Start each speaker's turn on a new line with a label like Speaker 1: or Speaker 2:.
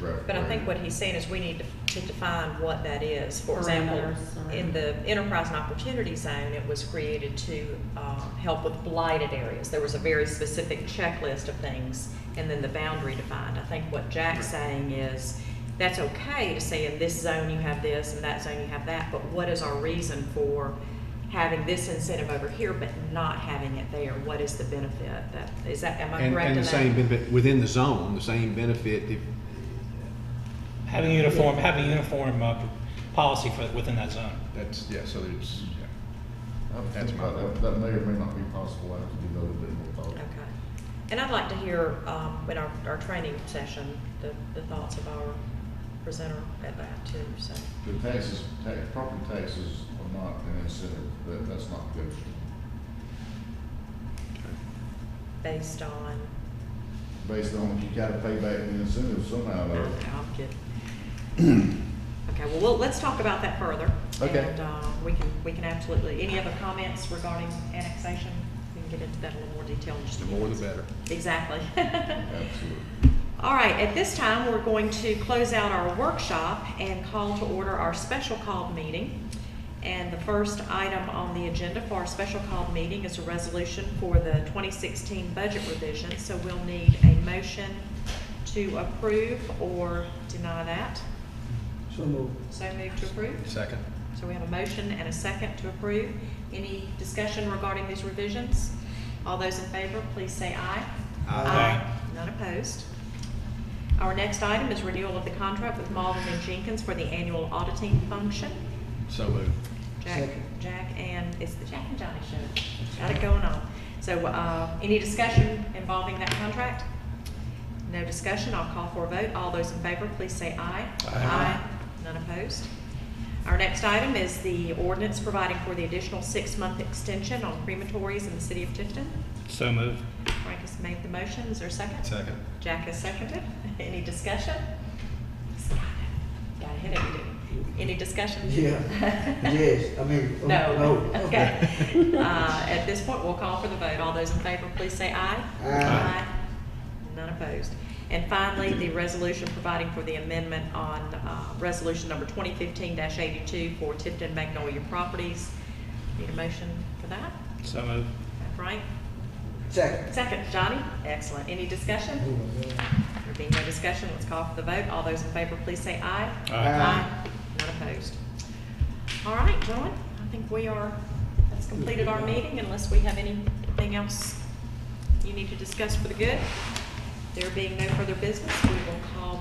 Speaker 1: Right,
Speaker 2: But I
Speaker 1: right.
Speaker 2: think what he's saying is we need to to define what that is. For example,
Speaker 3: Parameters or-
Speaker 2: in the enterprise and opportunity zone, it was created to uh, help with blighted areas. There was a very specific checklist of things, and then the boundary defined. I think what Jack's saying is, that's okay to say in this zone you have this, and that zone you have that, but what is our reason for having this incentive over here but not having it there? What is the benefit? That, is that, am I correct in
Speaker 4: And,
Speaker 2: that?
Speaker 4: and the same benefit, within the zone, the same benefit if,
Speaker 5: Having uniform, having uniform uh, policy for, within that zone.
Speaker 4: that's,
Speaker 1: Yeah, so there's, yeah. I would
Speaker 4: That's
Speaker 1: think
Speaker 4: my
Speaker 1: about
Speaker 4: vote.
Speaker 1: That That may or may not be possible, I have to give that a little bit more thought.
Speaker 2: Okay. And I'd like to hear, um, in our, our training session, the, the thoughts of our presenter at that too, so.
Speaker 1: The taxes, tax, property taxes are not an incentive, that, that's not good.
Speaker 2: Based on,
Speaker 1: Based on, you gotta pay back the incentive somehow, though.
Speaker 2: okay, I'll get. Okay, well, well, let's talk about that further.
Speaker 1: Okay.
Speaker 2: And, uh, we can, we can absolutely, any other comments regarding annexation? We can get into that in a little more detail in just a
Speaker 4: the
Speaker 2: few
Speaker 4: more
Speaker 2: minutes.
Speaker 4: the better.
Speaker 2: Exactly.
Speaker 1: Absolutely.
Speaker 2: All right, at this time, we're going to close out our workshop and call to order our special call meeting. And the first item on the agenda for our special call meeting is a resolution for the 2016 budget revision. So we'll need a motion to approve or deny that.
Speaker 6: So move.
Speaker 2: So move to approve.
Speaker 4: Second.
Speaker 2: So we have a motion and a second to approve. Any discussion regarding these revisions? All those in favor, please say aye.
Speaker 4: Aye.
Speaker 2: None opposed. Our next item is renewal of the contract with Malden and Jenkins for the annual auditing function.
Speaker 4: So moved.
Speaker 2: Jack,
Speaker 6: Second.
Speaker 2: Jack and, it's the Jack and Johnny show. Got it going on. So, uh, any discussion involving that contract? No discussion, I'll call for a vote. All those in favor, please say aye. Aye. None opposed. Our next item is the ordinance providing for the additional six-month extension on crematories in the city of Tifton.
Speaker 5: So moved.
Speaker 2: Frank has made the motion, is there a second?
Speaker 4: Second.
Speaker 2: Jack has seconded. Any discussion? He's got it. Got a headache, dude. Any discussion?
Speaker 6: Yeah, yes, I mean. oh,
Speaker 2: No,
Speaker 6: no.
Speaker 2: okay. Uh, At this point, we'll call for the vote. All those in favor, please say aye.
Speaker 6: Aye.
Speaker 2: None opposed. And finally, the resolution providing for the amendment on uh, Resolution Number 2015-82 for Tifton Magnolia Properties. Need a motion for that?
Speaker 5: So moved.
Speaker 2: Frank?
Speaker 6: Second.
Speaker 2: Second, Johnny? Excellent. Any discussion? There being no discussion, let's call for the vote. All those in favor, please say aye.
Speaker 6: Aye.
Speaker 2: Not opposed. All right, gentlemen, I think we are, that's completed our meeting unless we have anything else you need to discuss for the good. There being no further business, we will call